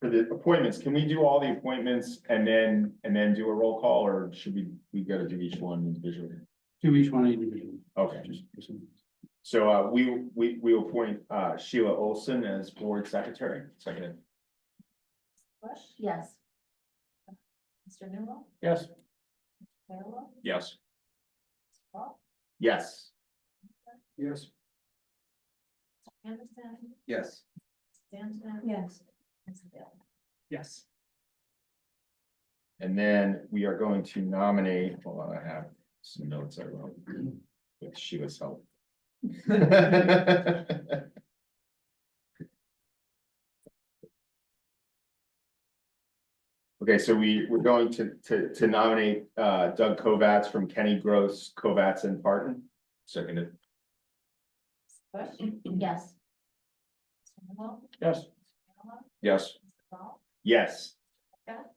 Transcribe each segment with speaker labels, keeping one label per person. Speaker 1: for the appointments, can we do all the appointments and then, and then do a roll call, or should we, we gotta do each one individually?
Speaker 2: to each one individually.
Speaker 1: Okay, so, uh, we, we, we appoint, uh, Sheila Olson as board secretary, second.
Speaker 3: Bush? Yes. Mr. Newell?
Speaker 2: Yes.
Speaker 3: Farewell?
Speaker 1: Yes.
Speaker 3: Mr. Paul?
Speaker 1: Yes.
Speaker 2: Yes.
Speaker 3: Anderson?
Speaker 2: Yes.
Speaker 3: Stanton? Yes. Mr. Bill?
Speaker 2: Yes.
Speaker 1: And then we are going to nominate, hold on, I have some notes I wrote with Sheila's help. Okay, so we, we're going to, to, to nominate, uh, Doug Kovats from Kenny Gross, Kovats and Parton. Seconded.
Speaker 3: Bush? Yes. Mr. Newell?
Speaker 2: Yes.
Speaker 3: Farewell?
Speaker 1: Yes.
Speaker 3: Mr. Paul?
Speaker 1: Yes.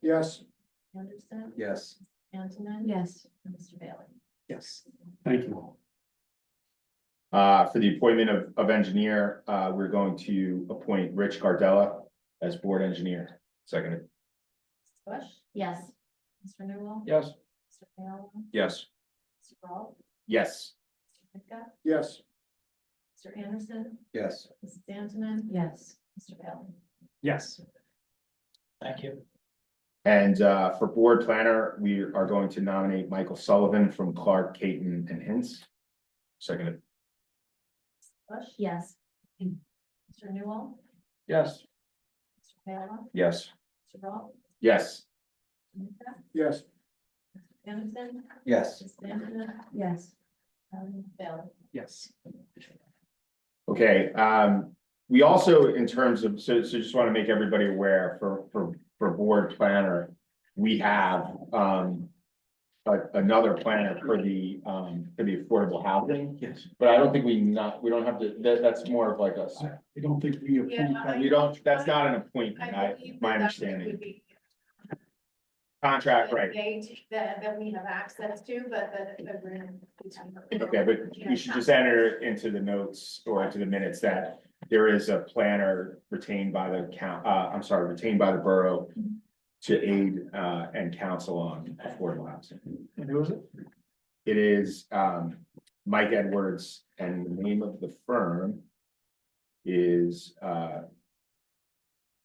Speaker 2: Yes.
Speaker 3: Anderson?
Speaker 2: Yes.
Speaker 3: Antonin? Yes. And Mr. Bailey?
Speaker 2: Yes. Thank you all.
Speaker 1: Uh, for the appointment of, of engineer, uh, we're going to appoint Rich Gardella as board engineer. Seconded.
Speaker 3: Bush? Yes. Mr. Newell?
Speaker 2: Yes.
Speaker 3: Mr. Farewell?
Speaker 1: Yes.
Speaker 3: Mr. Paul?
Speaker 1: Yes.
Speaker 3: Mr. Pickup?
Speaker 2: Yes.
Speaker 3: Mr. Anderson?
Speaker 2: Yes.
Speaker 3: Mrs. Antonin? Yes. Mr. Bailey?
Speaker 2: Yes. Thank you.
Speaker 1: And uh, for board planner, we are going to nominate Michael Sullivan from Clark, Caton and Hints. Seconded.
Speaker 3: Bush? Yes. Mr. Newell?
Speaker 2: Yes.
Speaker 3: Mr. Farewell?
Speaker 1: Yes.
Speaker 3: Mr. Paul?
Speaker 1: Yes.
Speaker 3: Mr.
Speaker 2: Yes.
Speaker 3: Anderson?
Speaker 2: Yes.
Speaker 3: Yes. Um, Bill.
Speaker 2: Yes.
Speaker 1: Okay, um, we also, in terms of, so, so just want to make everybody aware for, for, for board planner, we have, um, a- another planner for the, um, for the affordable housing,
Speaker 2: Yes.
Speaker 1: but I don't think we not, we don't have to, that, that's more of like a,
Speaker 2: I I don't think we approve
Speaker 4: Yeah, I-
Speaker 1: we
Speaker 2: that.
Speaker 1: don't, that's not an appointment, I, my understanding. Contract, right,
Speaker 4: Gauge that, that we have access to, but that agreement between.
Speaker 1: Okay, but we should just enter into the notes or into the minutes that there is a planner retained by the count, uh, I'm sorry, retained by the borough to aid, uh, and counsel on affordable housing.
Speaker 2: And who is it?
Speaker 1: It is, um, Mike Edwards and the name of the firm is, uh,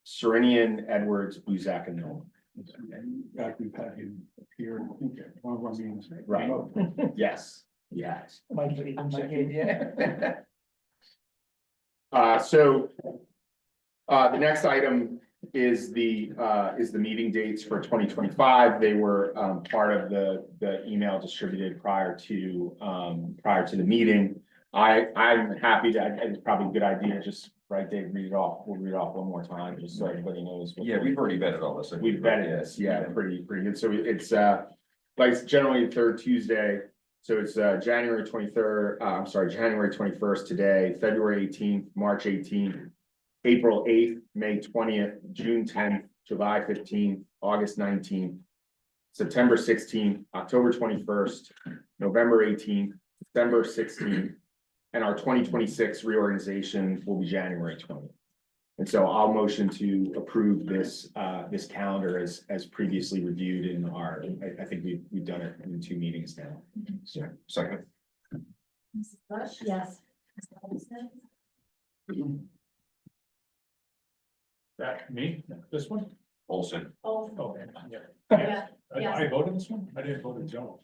Speaker 1: Serenian Edwards Buzak and Noel.
Speaker 2: In fact, we've had him appear, I think, at one of our meetings.
Speaker 1: Right. Yes, yes. Uh, so, uh, the next item is the, uh, is the meeting dates for twenty twenty-five. They were, um, part of the, the email distributed prior to, um, prior to the meeting. I, I'm happy to, I- it's probably a good idea, just, right, Dave, read it off, we'll read it off one more time, just so everybody knows. what-
Speaker 5: Yeah, we've already vetted all this. I think.
Speaker 1: We've vetted this, yeah, pretty, pretty good. So it's, uh, like it's generally the third Tuesday. So it's, uh, January twenty-third, uh, I'm sorry, January twenty-first today, February eighteenth, March eighteenth, April eighth, May twentieth, June tenth, July fifteenth, August nineteenth, September sixteenth, October twenty-first, November eighteenth, December sixteenth, and our twenty twenty-six reorganization will be January twentieth. And so I'll motion to approve this, uh, this calendar as, as previously reviewed in our, I, I think we've, we've done it in two meetings now.
Speaker 5: Yeah, Second,
Speaker 3: Mrs. Bush? Yes. Mr. Olson?
Speaker 6: That, me, this one?
Speaker 5: Olson,
Speaker 3: Olson?
Speaker 6: Oh, yeah.
Speaker 3: Yeah,
Speaker 6: I I voted this one? I didn't vote in general.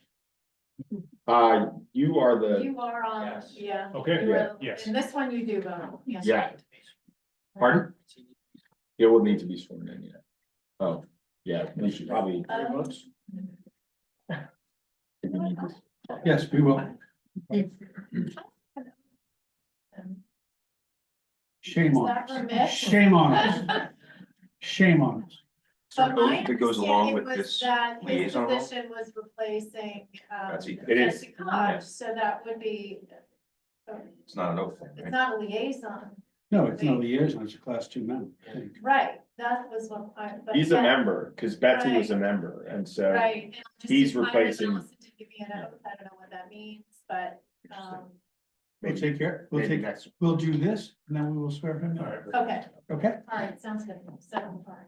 Speaker 1: Uh, you are the,
Speaker 4: You are on,
Speaker 6: Yes.
Speaker 4: yeah.
Speaker 6: Okay,
Speaker 4: you are-
Speaker 6: yes.
Speaker 4: And this one you do vote. yes.
Speaker 1: Yeah. pardon? It will need to be sworn in, yeah. Oh, yeah, we should probably.
Speaker 4: Um,
Speaker 2: Yes, we will.
Speaker 4: um,
Speaker 2: Shame on
Speaker 4: Is that
Speaker 2: us.
Speaker 4: remiss?
Speaker 2: Shame on us. Shame on us.
Speaker 5: So
Speaker 4: But my
Speaker 5: that goes
Speaker 4: understanding
Speaker 5: along with
Speaker 4: was
Speaker 5: this,
Speaker 4: that his
Speaker 5: liaison role?
Speaker 4: position was replacing, um,
Speaker 5: Betsy,
Speaker 1: It is.
Speaker 4: Jesse Koch, so that would be, um,
Speaker 5: it's not an oath thing,
Speaker 4: it's
Speaker 5: right?
Speaker 4: not a liaison,
Speaker 2: No, it's not the years, it's a class two member. I think.
Speaker 4: right, that was what I. but
Speaker 1: He's a
Speaker 4: that-
Speaker 1: member, because Betsy was a member, and so.
Speaker 4: Right. and I'm just-
Speaker 1: he's
Speaker 4: I was
Speaker 1: replacing-
Speaker 4: also to give you an oath, I don't know what that means, but, um,
Speaker 2: We'll
Speaker 1: Maybe,
Speaker 2: take care, we'll
Speaker 1: maybe
Speaker 2: take,
Speaker 1: next.
Speaker 2: we'll do this, and then we will swear him in.
Speaker 4: okay,
Speaker 2: Okay?
Speaker 4: all right, sounds good, seven, all right.